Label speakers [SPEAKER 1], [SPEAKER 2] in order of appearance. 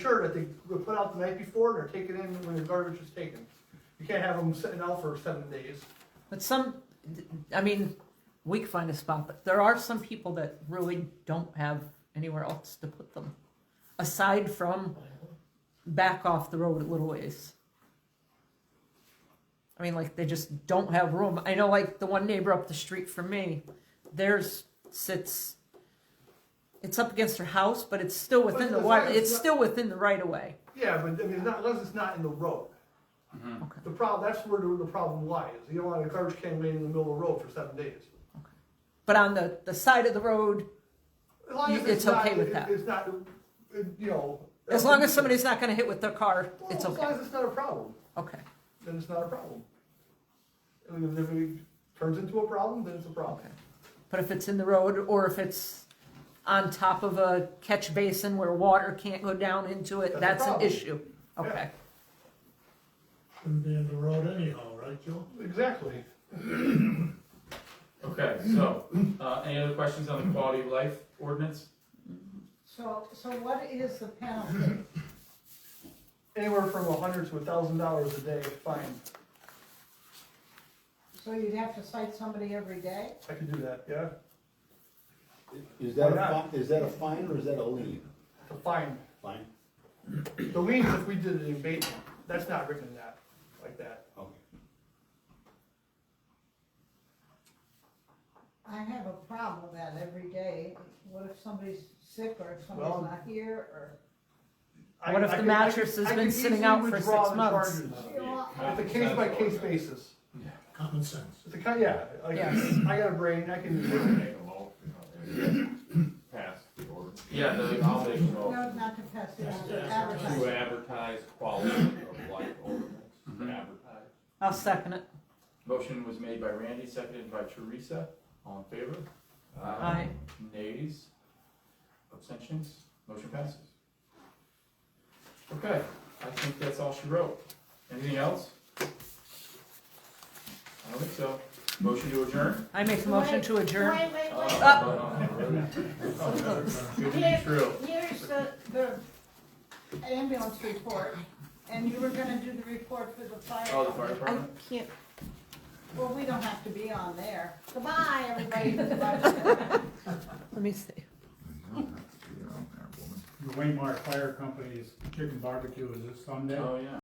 [SPEAKER 1] sure that they were put out the night before and are taken in when the garbage is taken. You can't have them sitting out for seven days.
[SPEAKER 2] But some, I mean, we can find a spot, but there are some people that really don't have anywhere else to put them. Aside from back off the road a little ways. I mean, like, they just don't have room. I know, like, the one neighbor up the street from me, theirs sits, it's up against her house, but it's still within the
[SPEAKER 1] But- but
[SPEAKER 2] water,
[SPEAKER 1] that's
[SPEAKER 2] it's
[SPEAKER 1] not-
[SPEAKER 2] still within the right of way.
[SPEAKER 1] Yeah, but I mean, not, unless it's not in the road.
[SPEAKER 2] Okay.
[SPEAKER 1] The problem, that's where the, the problem lies. You don't want a garbage can laying in the middle of the road for seven days.
[SPEAKER 2] But on the, the side of the road,
[SPEAKER 1] As long as
[SPEAKER 2] You- it's
[SPEAKER 1] not-
[SPEAKER 2] okay with
[SPEAKER 1] it-
[SPEAKER 2] that.
[SPEAKER 1] It's not, it- you know.
[SPEAKER 2] as long as somebody's not gonna hit with their car,
[SPEAKER 1] Well,
[SPEAKER 2] it's
[SPEAKER 1] As long
[SPEAKER 2] okay,
[SPEAKER 1] as it's not a problem,
[SPEAKER 2] okay.
[SPEAKER 1] then it's not a problem. I mean, if it turns into a problem, then it's a problem.
[SPEAKER 2] Okay. But if it's in the road or if it's on top of a catch basin where water can't go down into it,
[SPEAKER 1] That's a
[SPEAKER 2] that's an
[SPEAKER 1] problem.
[SPEAKER 2] issue. Okay.
[SPEAKER 3] Shouldn't be in the road anyhow, right, Joe?
[SPEAKER 1] Exactly.
[SPEAKER 4] Okay, so, uh, any other questions on the quality of life ordinance?
[SPEAKER 5] So, so what is the penalty?
[SPEAKER 1] Anywhere from a hundred to a thousand dollars a day, fine.
[SPEAKER 5] So you'd have to cite somebody every day?
[SPEAKER 1] I could do that, yeah?
[SPEAKER 6] Is that
[SPEAKER 1] Why
[SPEAKER 6] a,
[SPEAKER 1] not?
[SPEAKER 6] fi- is that a fine or is that a lien?
[SPEAKER 1] It's a fine.
[SPEAKER 6] Fine?
[SPEAKER 1] The liens, if we did an abatement, that's not written in that, like that.
[SPEAKER 6] Okay.
[SPEAKER 5] I have a problem with that every day. What if somebody's sick or if
[SPEAKER 1] Well-
[SPEAKER 5] somebody's not here or?
[SPEAKER 1] I-
[SPEAKER 2] What if
[SPEAKER 1] I
[SPEAKER 2] the
[SPEAKER 1] could- I
[SPEAKER 2] mattress
[SPEAKER 1] could-
[SPEAKER 2] has
[SPEAKER 1] I
[SPEAKER 2] been
[SPEAKER 1] could
[SPEAKER 2] sitting
[SPEAKER 1] easily
[SPEAKER 2] out for
[SPEAKER 1] withdraw
[SPEAKER 2] six
[SPEAKER 1] the
[SPEAKER 2] months?
[SPEAKER 1] charges.
[SPEAKER 5] You know,
[SPEAKER 1] It's a case by case basis.
[SPEAKER 3] Common sense.
[SPEAKER 1] It's a kind, yeah, like,
[SPEAKER 2] Yes.
[SPEAKER 1] I got a brain, I can do it.
[SPEAKER 7] pass the order
[SPEAKER 4] Yeah, the, I'll make a motion.
[SPEAKER 5] No, not to pass it on, to
[SPEAKER 7] to
[SPEAKER 5] advertise.
[SPEAKER 7] advertise quality of life ordinance,
[SPEAKER 4] Mhm.
[SPEAKER 7] advertise.
[SPEAKER 2] I'll second it.
[SPEAKER 4] Motion was made by Randy, seconded by Teresa, all in favor?
[SPEAKER 2] Aye.
[SPEAKER 4] Nays? Abstentions? Motion passes. Okay, I think that's all she wrote. Anything else? I don't think so. Motion to adjourn?
[SPEAKER 2] I make a motion to adjourn.
[SPEAKER 8] Wait, wait,
[SPEAKER 4] Oh,
[SPEAKER 8] wait,
[SPEAKER 4] no, no, no. Good to be
[SPEAKER 5] Here-
[SPEAKER 4] true.
[SPEAKER 5] Here's the, the ambulance report, and you were gonna do the report for the fire.
[SPEAKER 4] Oh, the fire
[SPEAKER 2] I
[SPEAKER 4] department?
[SPEAKER 2] can't,
[SPEAKER 5] Well, we don't have to be on there.
[SPEAKER 8] goodbye, everybody.
[SPEAKER 5] Everybody can watch that.
[SPEAKER 2] let me see.
[SPEAKER 3] The Waymar Fire Company's chicken barbecue is this Sunday?
[SPEAKER 4] Oh, yeah.